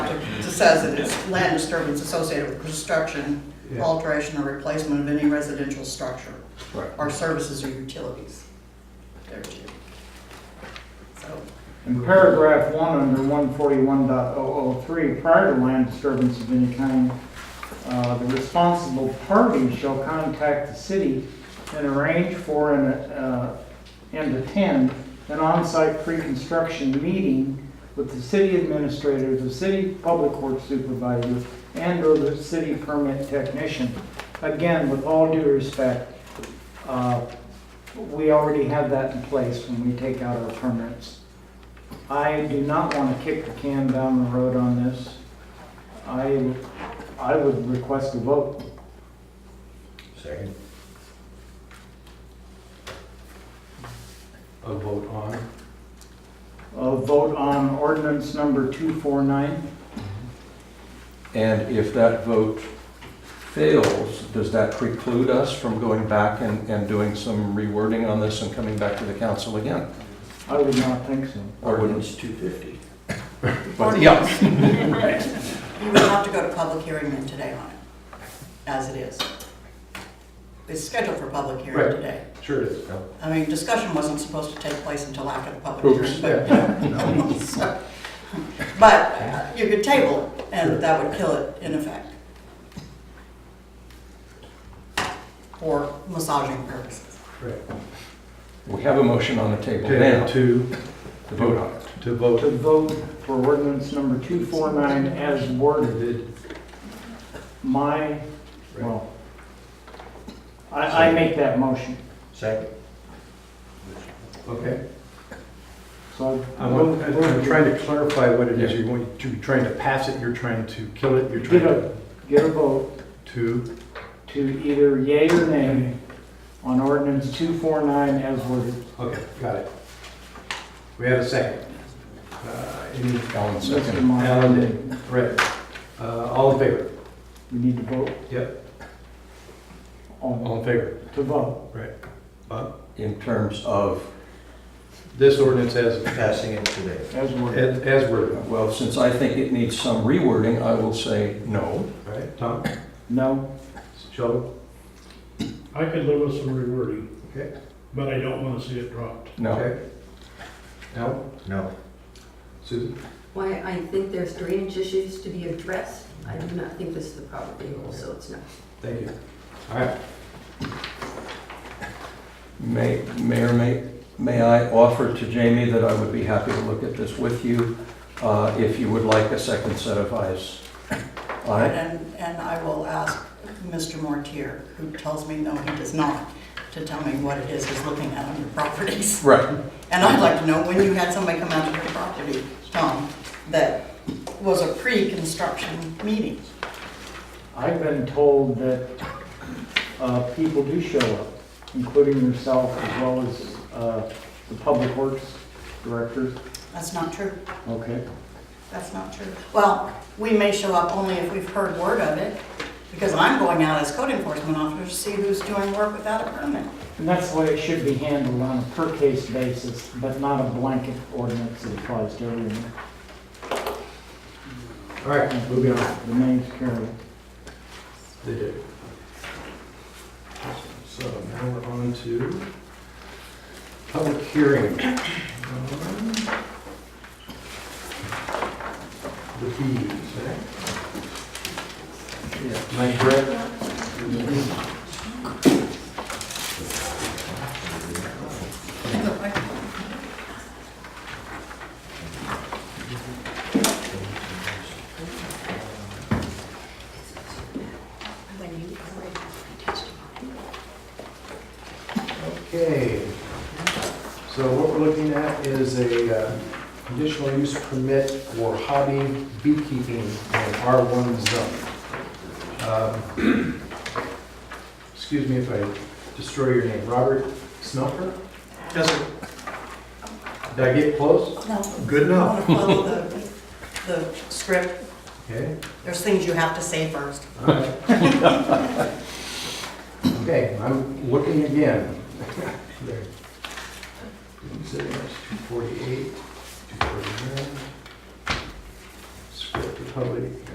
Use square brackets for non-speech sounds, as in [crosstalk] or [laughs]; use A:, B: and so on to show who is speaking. A: says it is land disturbance associated with construction, alteration, or replacement of any residential structure
B: Right.
A: or services or utilities. There it is. So,
C: In paragraph one, under 141.003, prior to land disturbance of any kind, uh, the responsible party shall contact the city and arrange for and, uh, and attend an on-site pre-construction meeting with the city administrator, the city public works supervisor, and or the city permit technician. Again, with all due respect, uh, we already have that in place when we take out our permits. I do not want to kick the can down the road on this. I, I would request a vote.
B: Second. A vote on?
C: A vote on ordinance number 249.
D: And if that vote fails, does that preclude us from going back and, and doing some rewording on this and coming back to the council again?
C: I would not think so.
B: Ordinance two fifty.
D: But, yeah,
A: you would have to go to public hearing then today on it, as it is. It's scheduled for public hearing
B: Right.
A: today.
B: Sure it is.
A: I mean, discussion wasn't supposed to take place until after the public
D: Oops.
A: hearing. but, [laughs] you know, so. But uh, you could table it,
B: Sure.
A: and that would kill it in effect. For massaging purposes.
B: Correct.
D: we have a motion on the table now
B: Table
D: to
B: two,
D: vote on it.
B: to vote.
C: To vote for ordinance number 249 as worded,
B: Did-
C: my, well, I, I make that motion.
B: Second. Okay.
C: So I
B: I'm, I'm
C: try
B: trying to clarify what it is you're going, you're trying to pass it, you're trying to kill it, you're trying
C: Get
B: to,
C: a, get a vote
B: to,
C: to either yea or nay on ordinance 249 as worded.
B: okay, got it. We have a second. Uh, Any,
D: Alan
C: Mr.
D: second.
C: Meyer.
B: Alan did, right. Uh, all in favor?
C: We need to vote
B: Yep, all
C: on,
B: in favor.
C: to vote.
B: Bob?
D: in terms of,
B: This ordinance has passing it today.
C: As worded.
B: As, as worded,
D: well, since I think it needs some rewording, I will say no.
B: all right, Tom,
C: No?
B: Sheldon,
E: I could live with some rewording,
B: okay,
E: but I don't want to see it dropped.
D: No,
B: okay. No? No. Susan?
F: Why, I think there's drainage issues to be addressed. I do not think this is the property hole, so it's not.
B: Thank you. All right,
D: may, mayor, may, may I offer to Jamie that I would be happy to look at this with you, uh, if you would like a second set of eyes on it?
A: And, and I will ask Mr. Mortier, who tells me no, he does not, to tell me what it is he's looking at on your properties. [laughs]
D: Right.
A: And I'd like to know when you had somebody come out to your property, Tom, that was a pre-construction meeting.
C: I've been told that uh, people do show up, including yourself as well as uh, the public works director.
A: That's not true.
C: Okay.
A: That's not true. Well, we may show up only if we've heard word of it, because I'm going out as code enforcement officer to see who's doing work without a permit.
C: And that's the way it should be handled on a per case basis, but not a blanket ordinance that applies to everyone.
B: all right, moving on.
C: The name's carried.
B: They do. So now we're on to public hearing. Um, on The fees, right? Am I correct? Okay, so what we're looking at is a uh, conditional use permit for hobby beekeeping in R1 zone. Um, Excuse me if I destroy your name, Robert Smelter? Yes, sir. Did I get close? Good
A: I
B: enough.
A: want to follow the, the script.
B: Okay,
A: There's things you have to say first.
B: all right. Okay, I'm looking again. There. Didn't say much, 248, 249. Script is public